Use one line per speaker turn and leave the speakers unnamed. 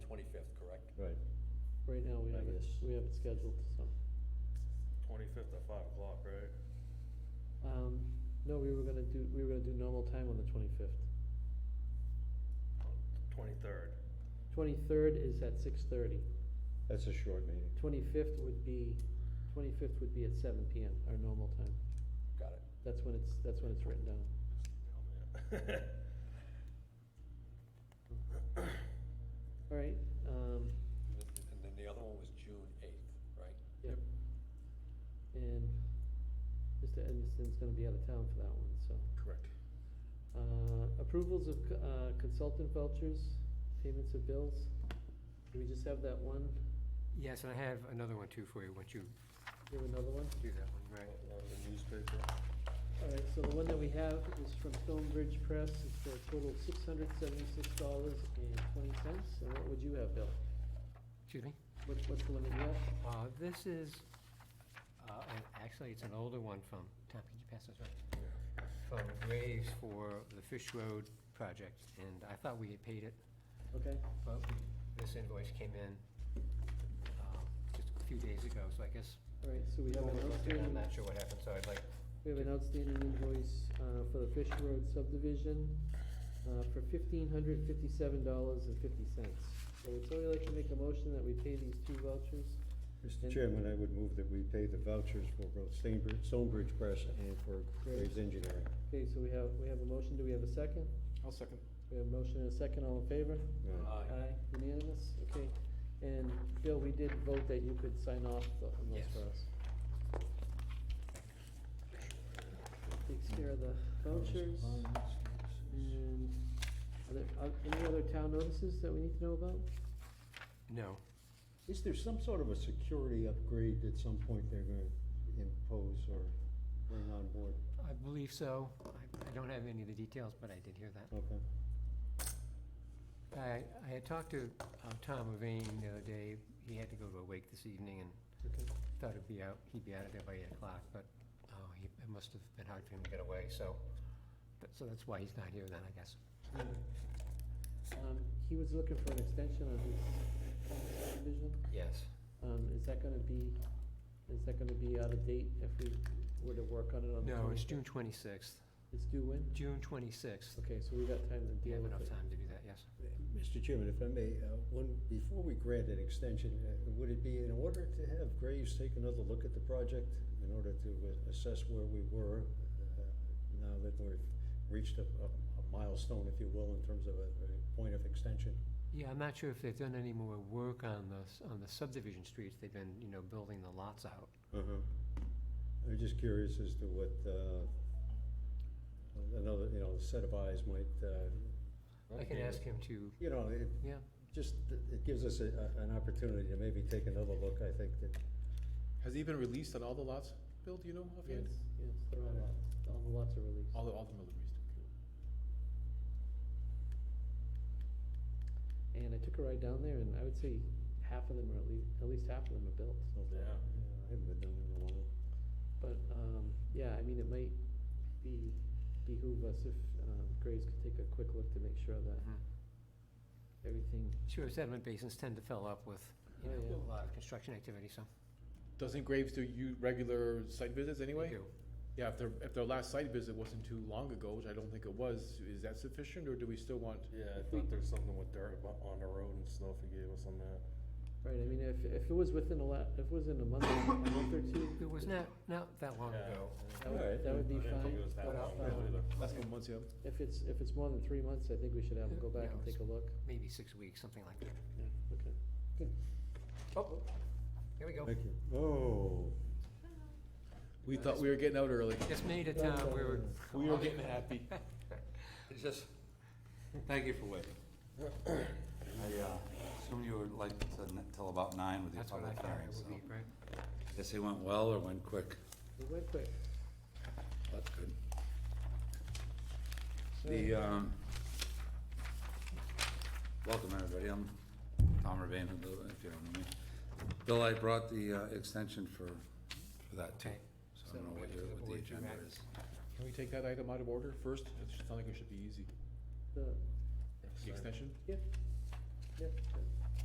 Right.
Right now, we
I
have it,
guess.
we have it scheduled, so.
Twenty-fifth at five o'clock, right?
Um, no, we were gonna do, we were gonna do normal time on the twenty-fifth.
Twenty-third.
Twenty-third is at six-thirty.
That's a short meeting.
Twenty-fifth would be, twenty-fifth would be at seven PM, our normal time.
Got it.
That's when it's, that's when it's written down. All right, um,
And then the other one was June eighth, right?
yep. And Mr. Edmiston's gonna be out of town for that one, so.
Correct.
Uh, approvals of, co- uh, consultant vouchers, payments of bills. Do we just have that one?
Yes, and I have another one too for you, once you
Do we have another one?
do that one, right?
The newspaper.
All right, so the one that we have is from Stonebridge Press, it's for a total of six hundred seventy-six dollars and twenty cents, and what would you have, Bill?
Excuse me?
What, what's the one that you have?
Uh, this is, uh, an- actually, it's an older one from, Tom, could you pass this around? From Graves for the Fish Road project, and I thought we had paid it,
Okay,
but we- this invoice came in, um, just a few days ago, so I guess.
all right, so we have an
overlooked it,
outstanding,
I'm not sure what happened, so I'd like,
we have an outstanding invoice, uh, for the Fish Road subdivision, uh, for fifteen hundred fifty-seven dollars and fifty cents. So would somebody like to make a motion that we pay these two vouchers?
Mr. Chairman, I would move that we pay the vouchers for both Stonebridge, Stonebridge Press and for Graves Engineering.
Okay, so we have, we have a motion, do we have a second?
I'll second.
We have a motion and a second, all in favor?
Right.
uh,
Aye, unanimous, okay. And Bill, we did vote that you could sign off the- on those
Yes.
for us. Takes care of the vouchers and are there, are any other town notices that we need to know about?
no,
Is there some sort of a security upgrade at some point they're gonna impose or bring on board?
I believe so. I, I don't have any of the details, but I did hear that.
Okay.
I, I had talked to uh, Tom Levine the other day. He had to go to a wake this evening and
Okay.
thought he'd be out, he'd be out of there by eight o'clock, but, oh, he, it must have been hard for him to get away, so, that- so that's why he's not here then, I guess.
Um, he was looking for an extension on his subdivision.
Yes.
Um, is that gonna be, is that gonna be out of date if we were to work on it on the
No, it's
25th?
June twenty-sixth,
It's due when?
June twenty-sixth.
Okay, so we got time to
Do you
deal
have
with it.
enough time to do that, yes?
Mr. Chairman, if I may, uh, one, before we grant an extension, uh, would it be in order to have Graves take another look at the project in order to uh, assess where we were, uh, now that we've reached a, a a milestone, if you will, in terms of a, a point of extension?
Yeah, I'm not sure if they've done any more work on the, s- on the subdivision streets. They've been, you know, building the lots out.
I'm just curious as to what, uh, another, you know, set of eyes might, uh,
I can ask him to,
you know, it,
yeah,
just, it gives us a, a- an opportunity to maybe take another look, I think, that
Has he been released on all the lots, Bill, do you know offhand?
Yes, yes, they're all lots, all the lots are released.
All the, all of them are released.
And I took a ride down there, and I would say half of them are at least, at least half of them are built.
Yeah,
Yeah.
I haven't been down there in a while.
But, um, yeah, I mean, it might be, behoove us if, um, Graves could take a quick look to make sure that
mhm.
everything,
Sure, sediment basins tend to fill up with, you
Oh,
know,
yeah.
a lot of construction activity, so.
Doesn't Graves do you regular site visits
they
anyway?
do.
Yeah, if their, if their last site visit wasn't too long ago, which I don't think it was, is that sufficient, or do we still want?
Yeah, I thought there's something with dirt abo- on the road and snow if you gave us on that.
right, I mean, if, if it was within a la, if it was in a month, a month or two,
It was not, not that long ago.
that would,
Alright.
that would
I
be
didn't think it
fine. Um,
was that
But, uh,
long ago either.
Last couple months, yeah.
If it's, if it's more than three months, I think we should have him go back and take a look.
maybe six weeks, something like that.
Yeah, okay.
Oh, here we go.
Thank you. Oh,
We thought we were getting out early.
Just made it town, we were.
We were getting happy.
It's just, thank you for waiting. I uh, assume you were like to n- till about nine with your
That's what I
public
thought
hearing,
it
so.
would be, right?
Guess it went well or went quick?
We went quick.
That's good. The, um, welcome everybody, I'm Tom Rabane, if you don't know me. Bill, I brought the uh, extension for, for that too,
Okay.
so I don't know what your, what the agenda is.
Can we take that item out of order first? It sounds like it should be easy.
The,
The extension?
yeah, yeah, that-